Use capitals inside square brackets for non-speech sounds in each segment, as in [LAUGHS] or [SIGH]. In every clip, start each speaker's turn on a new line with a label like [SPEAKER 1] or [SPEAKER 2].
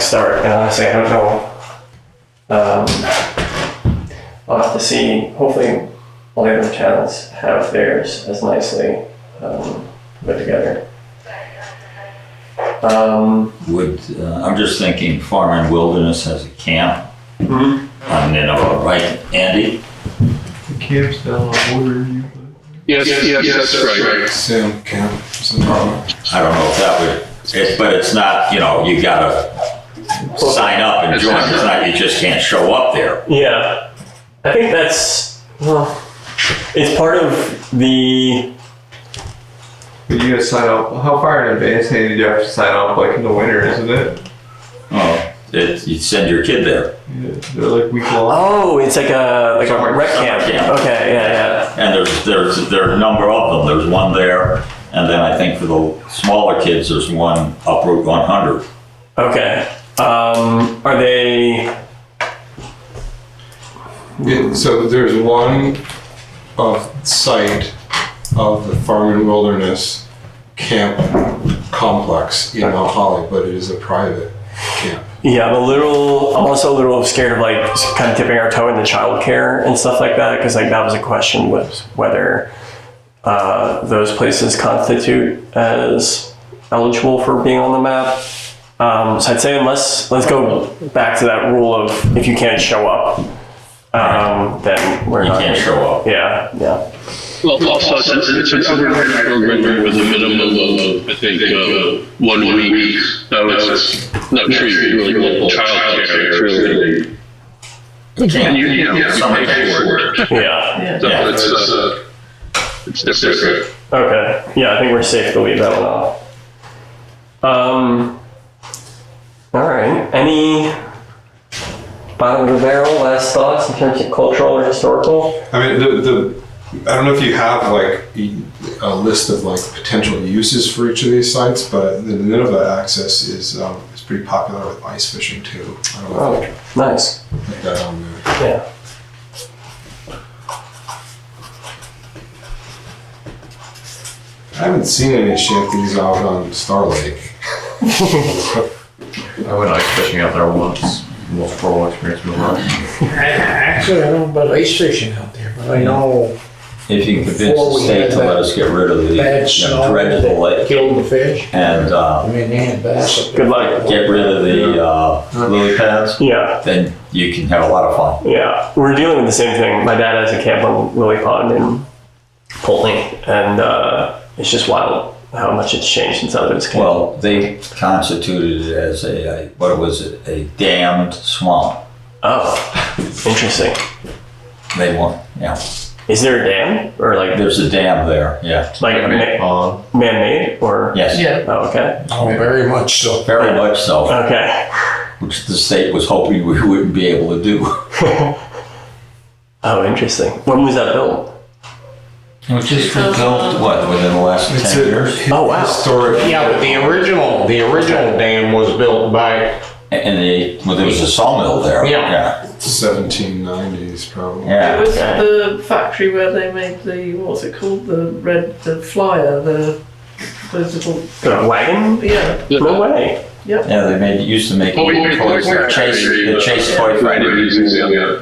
[SPEAKER 1] start. And honestly, I don't know. Um, I'll have to see. Hopefully, all the other channels have theirs as nicely um, put together. Um,
[SPEAKER 2] Would, uh, I'm just thinking Farm and Wilderness has a camp
[SPEAKER 1] Mhm.
[SPEAKER 2] on Nineveh, right, Andy?
[SPEAKER 3] The camp's down on Water View.
[SPEAKER 4] Yes, yes, that's right.
[SPEAKER 3] Sam Camp.
[SPEAKER 2] I don't know if that would, it, but it's not, you know, you gotta sign up and join, it's not, you just can't show up there.
[SPEAKER 1] yeah, I think that's well. It's part of the
[SPEAKER 3] But you gotta sign up. How far in advance hey, did you have to sign up? Like in the winter, isn't it?
[SPEAKER 2] Oh, it, you'd send your kid there,
[SPEAKER 3] Yeah, they're like week long.
[SPEAKER 1] oh, it's like a like a
[SPEAKER 3] Summer-
[SPEAKER 1] rec
[SPEAKER 2] summer
[SPEAKER 1] camp.
[SPEAKER 2] camp.
[SPEAKER 1] Okay, yeah, yeah.
[SPEAKER 2] and there's, there's, there are a number of them, there's one there, and then I think for the smaller kids, there's one up Route one hundred.
[SPEAKER 1] Okay. Um, are they?
[SPEAKER 5] Yeah, so there's one of site of the Farm and Wilderness Camp Complex in Mount Holly, but it is a private camp.
[SPEAKER 1] Yeah, I'm a little. I'm also a little scared of like kind of tipping our toe in the childcare and stuff like that because like that was a question was whether uh, those places constitute as eligible for being on the map. Um, so I'd say unless let's go back to that rule of if you can't show up, um, then we're
[SPEAKER 2] You
[SPEAKER 1] not.
[SPEAKER 2] can't show up.
[SPEAKER 1] Yeah, yeah,
[SPEAKER 4] Well, also, it's, it's an overnight program with a minimum of, I think, uh, one week. So it's not treated really like childcare, it's really. And you,
[SPEAKER 2] Camp,
[SPEAKER 4] you know, you
[SPEAKER 2] Summer
[SPEAKER 4] pay for it.
[SPEAKER 1] yeah.
[SPEAKER 4] So
[SPEAKER 2] Yeah.
[SPEAKER 4] it's, uh, it's different.
[SPEAKER 1] Okay. Yeah, I think we're safe to leave that one off. Um. All right. Any bottom of the barrel last thoughts in terms of cultural or historical?
[SPEAKER 5] I mean, the, the, I don't know if you have like a- a list of like potential uses for each of these sites, but the Nineveh access is, um, is pretty popular with ice fishing too. I don't know
[SPEAKER 1] Oh,
[SPEAKER 5] if
[SPEAKER 1] nice.
[SPEAKER 5] you put that on there.
[SPEAKER 1] Yeah.
[SPEAKER 5] I haven't seen any shanties out on Star Lake.
[SPEAKER 3] I went ice fishing out there once. Most pro experience of my life.
[SPEAKER 6] Actually, I don't know about ice fishing out there, but I know
[SPEAKER 2] if you can convince the state to let us get rid of the,
[SPEAKER 6] bad snow
[SPEAKER 2] dredge of the
[SPEAKER 6] that
[SPEAKER 2] lake,
[SPEAKER 6] killed the fish.
[SPEAKER 2] and, uh,
[SPEAKER 6] I mean, they had bass up there.
[SPEAKER 1] Good luck.
[SPEAKER 2] get rid of the uh, lily pads,
[SPEAKER 1] Yeah.
[SPEAKER 2] then you can have a lot of fun.
[SPEAKER 1] Yeah. We're dealing with the same thing. My dad has a camp on Lily Pond in Poultney, and uh, it's just wild how much it's changed since I was a kid.
[SPEAKER 2] Well, they constituted it as a, a- what was it, a dammed swamp.
[SPEAKER 1] oh, interesting.
[SPEAKER 2] They want, yeah,
[SPEAKER 1] Is there a dam or like
[SPEAKER 2] there's a dam there, yeah.
[SPEAKER 1] like a ma-
[SPEAKER 3] Um,
[SPEAKER 1] man-made or?
[SPEAKER 2] Yes,
[SPEAKER 1] Oh, okay.
[SPEAKER 6] Oh, very much so.
[SPEAKER 2] very much so,
[SPEAKER 1] Okay. [LAUGHS]
[SPEAKER 2] which the state was hoping we [LAUGHS] wouldn't be able to do.
[SPEAKER 1] Oh, interesting. When was that built?
[SPEAKER 2] Which is built, what, within the last
[SPEAKER 5] It's
[SPEAKER 2] ten
[SPEAKER 5] a
[SPEAKER 2] years?
[SPEAKER 5] hi-
[SPEAKER 1] Oh, wow.
[SPEAKER 5] historic.
[SPEAKER 6] Yeah, but the original, the original dam was built by,
[SPEAKER 2] And they, well, there was a sawmill there.
[SPEAKER 6] Yeah.
[SPEAKER 5] 1790s, probably.
[SPEAKER 7] It
[SPEAKER 2] Yeah,
[SPEAKER 7] was
[SPEAKER 1] Okay.
[SPEAKER 7] the factory where they made the what's it called? The red the flyer, the those little
[SPEAKER 1] The wagon?
[SPEAKER 7] yeah.
[SPEAKER 1] No way.
[SPEAKER 2] yeah, they made, used to make
[SPEAKER 4] Oh, we- uh, we-
[SPEAKER 2] toys,
[SPEAKER 4] we-
[SPEAKER 2] the chase, the chase toy
[SPEAKER 4] Right,
[SPEAKER 2] factory.
[SPEAKER 4] it's easy, yeah.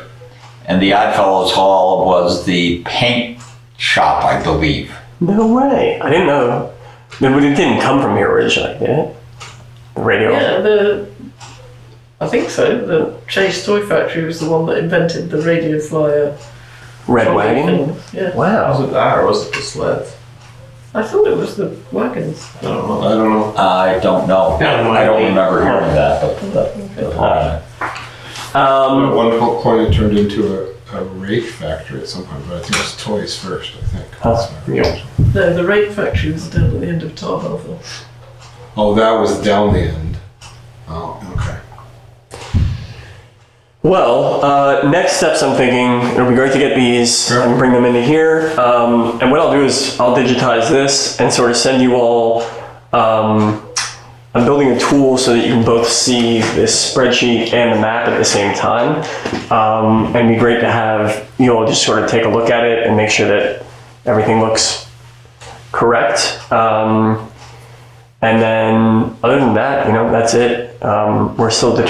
[SPEAKER 2] And the Oddfellows Hall was the paint shop, I believe.
[SPEAKER 1] No way. I didn't know. It would- it didn't come from here originally, did it? The radio.
[SPEAKER 7] Yeah, the I think so. The Chase Toy Factory was the one that invented the radio flyer.
[SPEAKER 1] Red
[SPEAKER 7] trolley
[SPEAKER 1] wagon?
[SPEAKER 7] thing. Yeah.
[SPEAKER 1] Wow.
[SPEAKER 3] was it that or was it the sleds?
[SPEAKER 7] I thought it was the wagons.
[SPEAKER 3] I don't know.
[SPEAKER 5] I don't know.
[SPEAKER 2] I don't know.
[SPEAKER 6] Yeah,
[SPEAKER 2] I don't
[SPEAKER 6] might be. Uh,
[SPEAKER 2] remember hearing that, but the, the hall.
[SPEAKER 1] Um,
[SPEAKER 5] At one po- point, it turned into a, a rake factory at some point, but I think it was toys first, I think. That's
[SPEAKER 1] Oh,
[SPEAKER 5] my recollection.
[SPEAKER 7] No, the rape factory was down at the end of Tar Hill.
[SPEAKER 5] Oh, that was down the end. Oh, okay.
[SPEAKER 1] Well, uh, next steps I'm thinking it'll be great to get these
[SPEAKER 5] Sure.
[SPEAKER 1] and bring them into here. Um, and what I'll do is I'll digitize this and sort of send you all. Um, I'm building a tool so that you can both see this spreadsheet and the map at the same time. Um, and it'd be great to have you all just sort of take a look at it and make sure that everything looks correct. Um, and then, other than that, you know, that's it. Um, we're still determining